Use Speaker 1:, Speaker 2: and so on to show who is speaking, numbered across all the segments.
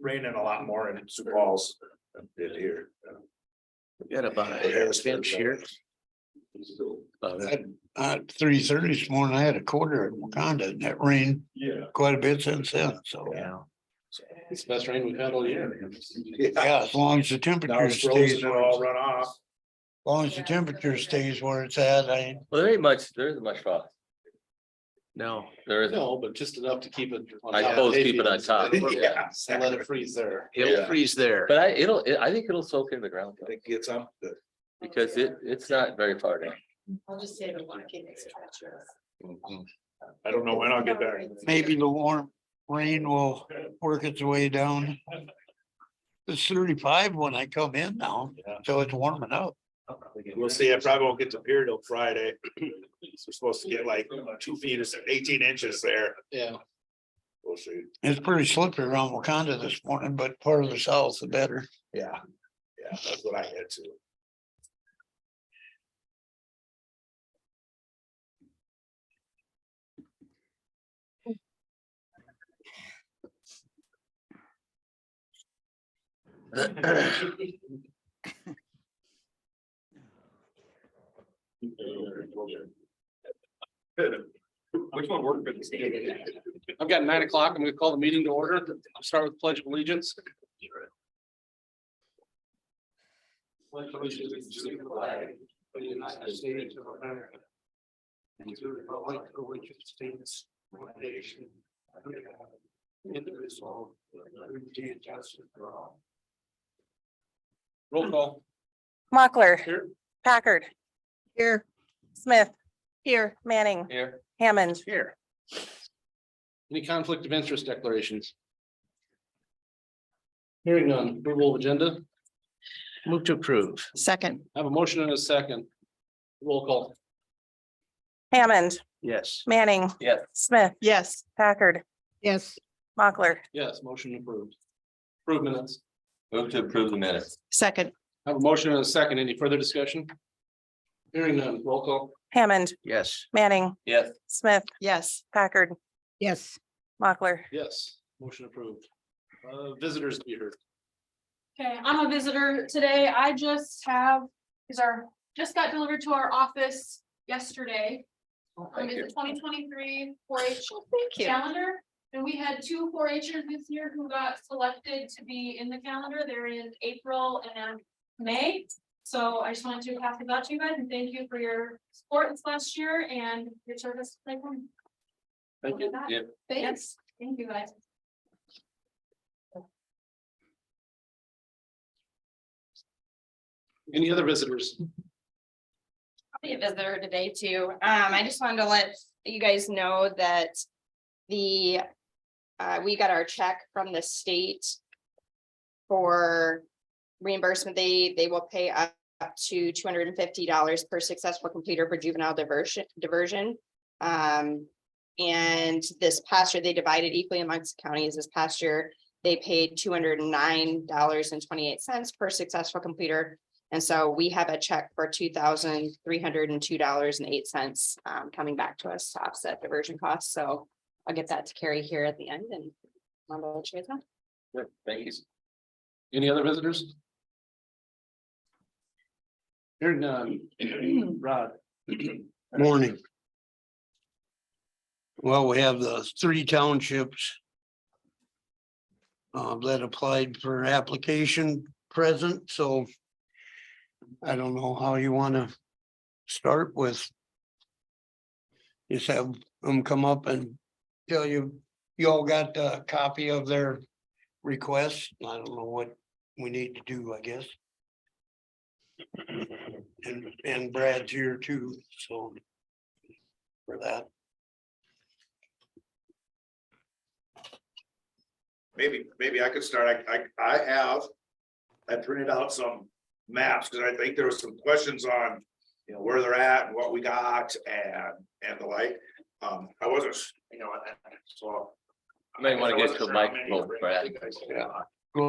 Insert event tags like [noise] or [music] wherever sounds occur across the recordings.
Speaker 1: raining a lot more in Sioux Falls than it did here.
Speaker 2: Got about a half inch here. Uh, About it.
Speaker 3: At three thirty this morning, I had a quarter in Wakanda and that rained
Speaker 1: Yeah.
Speaker 3: quite a bit since then, so.
Speaker 2: Yeah.
Speaker 4: It's the best rain we've had all year.
Speaker 3: Yeah, as long as the
Speaker 1: Now
Speaker 3: temperature
Speaker 1: it's frozen,
Speaker 3: stays,
Speaker 1: it
Speaker 3: where it's-
Speaker 1: all
Speaker 3: as
Speaker 1: run off.
Speaker 3: long as the temperature stays where it's at, I,
Speaker 5: Well, there ain't much, there isn't much frost.
Speaker 2: No,
Speaker 5: There isn't.
Speaker 4: No, but just enough to keep it. on
Speaker 5: I
Speaker 4: top of
Speaker 5: suppose keep it on
Speaker 4: hayfields.
Speaker 5: top.
Speaker 1: [laughs] Yeah.
Speaker 4: And let it freeze there.
Speaker 2: it'll
Speaker 5: Yeah.
Speaker 2: freeze there.
Speaker 5: But I, it'll, it- I think it'll soak in the ground though,
Speaker 1: It gets up. the-
Speaker 5: because it, it's not very far down.
Speaker 6: I'll just say the walking is treacherous.
Speaker 1: I don't know when I'll get back.
Speaker 3: maybe the warm rain will work its way down. It's thirty-five when I come in now, so it's warming up.
Speaker 1: We'll see. I probably won't get to pier till Friday. We're supposed to get like two feet or eighteen inches there.
Speaker 4: Yeah,
Speaker 1: We'll see.
Speaker 3: It's pretty slippery around Wakanda this morning, but part of the south the better.
Speaker 1: Yeah. Yeah, that's what I had to. Which one worked for this?
Speaker 4: I've got nine o'clock. I'm gonna call the meeting to order. I'll start with pledge of allegiance. Pledge allegiance to the flag of the United States of America. And to the republic for which it stands, one nation, under God, indivisible, with liberty and justice for all. Roll call
Speaker 7: Mochler,
Speaker 4: here.
Speaker 7: Packard. Here. Smith. Here. Manning,
Speaker 5: Here.
Speaker 7: Hammond,
Speaker 4: Here. Any conflict of interest declarations? Hearing none, approval of agenda,
Speaker 2: Move to approve.
Speaker 6: Second,
Speaker 4: I have a motion and a second. Roll call,
Speaker 7: Hammond,
Speaker 2: Yes.
Speaker 7: Manning.
Speaker 5: Yes.
Speaker 7: Smith,
Speaker 6: yes.
Speaker 7: Packard,
Speaker 6: Yes.
Speaker 7: Mochler,
Speaker 4: yes, motion approved. Approve minutes,
Speaker 5: Move to approve the minutes.
Speaker 6: Second,
Speaker 4: I have a motion and a second, any further discussion? Hearing none, roll call,
Speaker 7: Hammond,
Speaker 2: Yes.
Speaker 7: Manning,
Speaker 5: Yes.
Speaker 7: Smith,
Speaker 6: yes.
Speaker 7: Packard,
Speaker 6: Yes.
Speaker 7: Mochler.
Speaker 4: yes, motion approved. Uh, visitors to be heard,
Speaker 8: Okay, I'm a visitor today. I just have, these are, just got delivered to our office yesterday. Um,
Speaker 6: Oh
Speaker 5: Thank you.
Speaker 8: It's a twenty twenty-three four H
Speaker 6: Thank you.
Speaker 8: calendar. And we had two four Hers this year who got selected to be in the calendar. They're in April and May. So I just wanted to pass it out to you guys and thank you for your support this last year and your service. to Lakeland.
Speaker 4: thank you.
Speaker 8: That-
Speaker 5: Yeah.
Speaker 8: Thanks. Thank you guys.
Speaker 4: Any other visitors?
Speaker 9: I'll be a visitor today too. Um, I just wanted to let you guys know that the, uh, we got our check from the state for reimbursement. They, they will pay up up to two hundred and fifty dollars per successful completer for juvenile diversion, diversion. Um, and this past year, they divided equally amongst counties. This past year, they paid two hundred and nine dollars and twenty-eight cents per successful completer and so we have a check for two thousand three hundred and two dollars and eight cents um, coming back to us to offset diversion costs. So I'll get that to Carrie here at the end and. I'll let you guys know.
Speaker 5: Good, Thank you.
Speaker 4: Any other visitors? Hearing none, [clears throat] Rod.
Speaker 3: Morning. Well, we have the three townships. uh, that applied for application present, so. I don't know how you wanna start with. Just have them come up and tell you, you all got a copy of their request. I don't know what we need to do, I guess. And, and Brad's here too, so. For that,
Speaker 1: Maybe, maybe I could start. I, I, I have. I printed out some maps because I think there was some questions on, you know, where they're at and what we got and, and the like. Um, I wasn't, you know, I- I- so.
Speaker 5: You might wanna
Speaker 1: I
Speaker 5: get
Speaker 1: wasn't
Speaker 5: to
Speaker 1: sure
Speaker 5: the
Speaker 1: how many to
Speaker 5: microphone,
Speaker 1: bring.
Speaker 5: Brad.
Speaker 1: I think I said a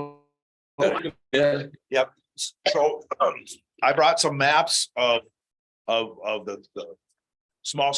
Speaker 1: lot.
Speaker 3: go
Speaker 5: Yeah.
Speaker 1: So um, I brought some maps of, of, of the, the small